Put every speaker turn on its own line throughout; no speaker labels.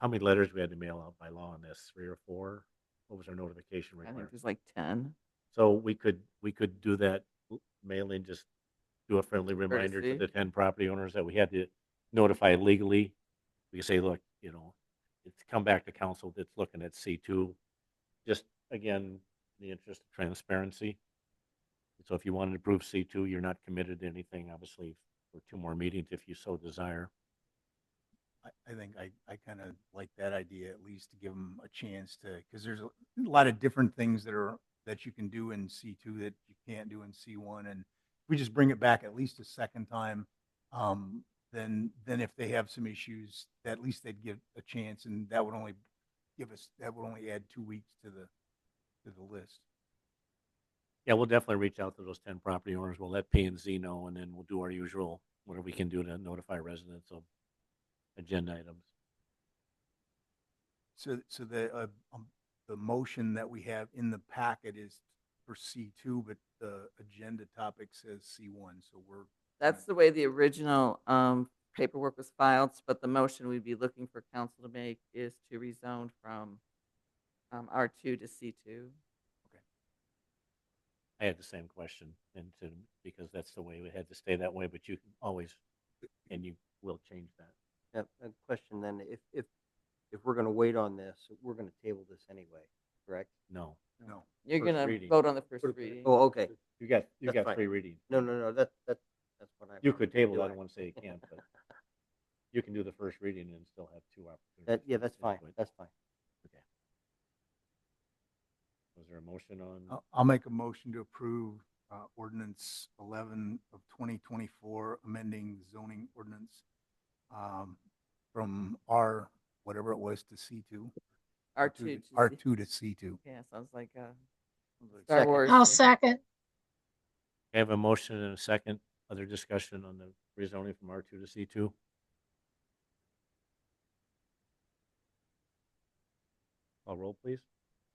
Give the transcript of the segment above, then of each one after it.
How many letters we had to mail out by law on this? Three or four? What was our notification
I think
requirement?
there's like ten.
So we could, we could do that mailing, just do a friendly reminder to
Courtesy.
the ten property owners that we had to notify legally. We could say, look, you know, it's come back to council that's looking at C two. Just again, in the interest of transparency. So if you wanted to approve C two, you're not committed to anything, obviously, for two more meetings if you so desire.
I, I think I, I kind of like that idea at least to give them a chance to, because there's a lot of different things that are, that you can do in C two that you can't do in C one. And we just bring it back at least a second time. Um, then, then if they have some issues, at least they'd give a chance and that would only give us, that would only add two weeks to the, to the list.
Yeah, we'll definitely reach out to those ten property owners. We'll let P and Z know, and then we'll do our usual, whatever we can do to notify residents of agenda items.
So, so the, uh, um, the motion that we have in the packet is for C two, but the agenda topic says C one, so we're
That's the way the original um, paperwork was filed, but the motion we'd be looking for council to make is to rezone from um, R2 to C2.
I had the same question and to, because that's the way we had to stay that way, but you can always, and you will change that.
Now, a question then, if, if, if we're gonna wait on this, we're gonna table this anyway, correct?
No,
No.
You're
First
going to
reading.
vote on the first reading.
Oh, okay.
you got, you
That's
got
fine.
three readings.
No, no, no, that, that, that's what I.
You could table, it. I
that
don't want to say you can't, but you can do the first reading and still have two opportunities.
That, yeah,
to
that's fine,
input.
that's fine.
Was there a motion on,
Uh, I'll- I'll make a motion to approve uh, ordinance 11 of 2024, amending zoning ordinance um, from R, whatever it was, to C2.
R2
to-
to
R2
C2.
to C2.
Yeah, sounds like uh, Star
Second.
Wars.
I'll second.
I have a motion and a second, other discussion on the rezoning from R two to C two? Call roll, please.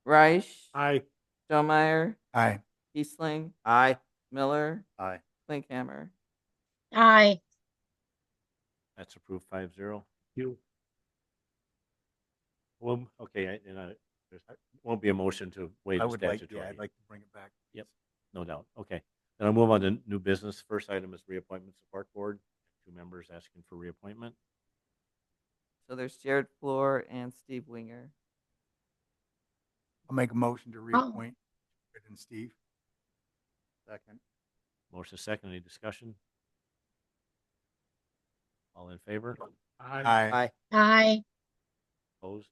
Reich,
Aye.
Stonemeyer,
Aye.
Kiesling,
Aye.
Miller,
Aye.
Linkhammer.
Aye.
That's approved five zero. You. Well, okay, I- and I, there's, won't be a motion to waive
I
the
would like, yeah,
statutory,
I'd like to bring it back.
Yep. no doubt. Okay. Then I'll move on to new business. First item is reappointments of park board. Two members asking for reappointment.
So there's Jared Floor and Steve Winger.
I'll make a motion to reappoint Fred and Steve. Second.
Motion second, any discussion? All in favor?
Aye.
Aye.
Aye.
Opposed?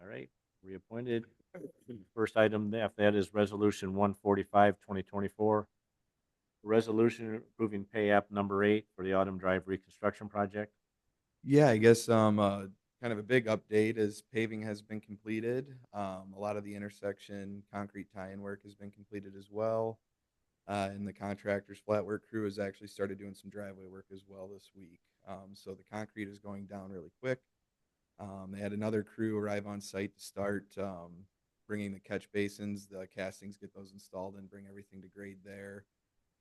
All right, reappointed. First item after that is Resolution 145, 2024. Resolution approving pay app number eight for the Autumn Drive Reconstruction Project.
Yeah, I guess um uh, kind of a big update is paving has been completed. Um, a lot of the intersection concrete tie-in work has been completed as well. Uh, and the contractor's flat work crew has actually started doing some driveway work as well this week. Um, so the concrete is going down really quick. Um, they had another crew arrive on site to start um, bringing the catch basins, the castings, get those installed, and bring everything to grade there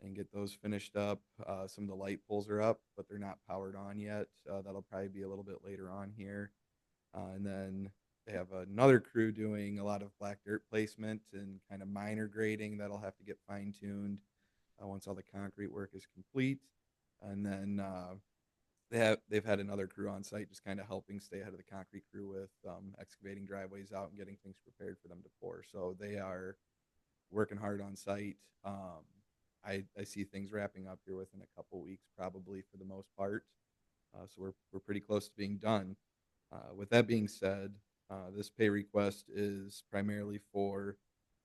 and get those finished up. Uh, some of the light poles are up, but they're not powered on yet. Uh, that'll probably be a little bit later on here. Uh, and then they have another crew doing a lot of black dirt placement and kind of minor grading that'll have to get fine tuned uh, once all the concrete work is complete. And then uh, they have they've had another crew on site just kind of helping stay ahead of the concrete crew with um, excavating driveways out and getting things prepared for them to pour. So they are working hard on site. Um, I, I see things wrapping up here within a couple weeks, probably for the most part. Uh, so we're, we're pretty close to being done. Uh, with that being said, uh, this pay request is primarily for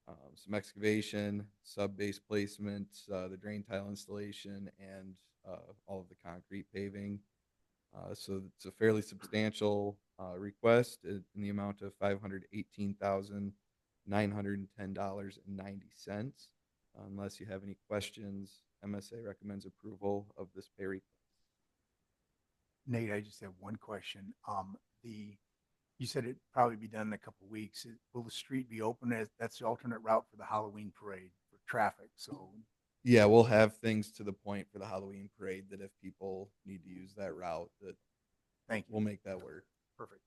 um, some excavation, sub base placement, uh, the drain tile installation, and uh, all of the concrete paving. Uh, so it's a fairly substantial uh, request in in the amount of five hundred eighteen thousand nine hundred and ten dollars and ninety cents. Unless you have any questions, MSA recommends approval of this pay request.
Nate, I just have one question. Um, the, you said it'd probably be done in a couple weeks. It- Will the street be open as, that's the alternate route for the Halloween parade for traffic, so
Yeah, we'll have things to the point for the Halloween parade that if people need to use that route, that
thank you.
we'll make that work.
Perfect.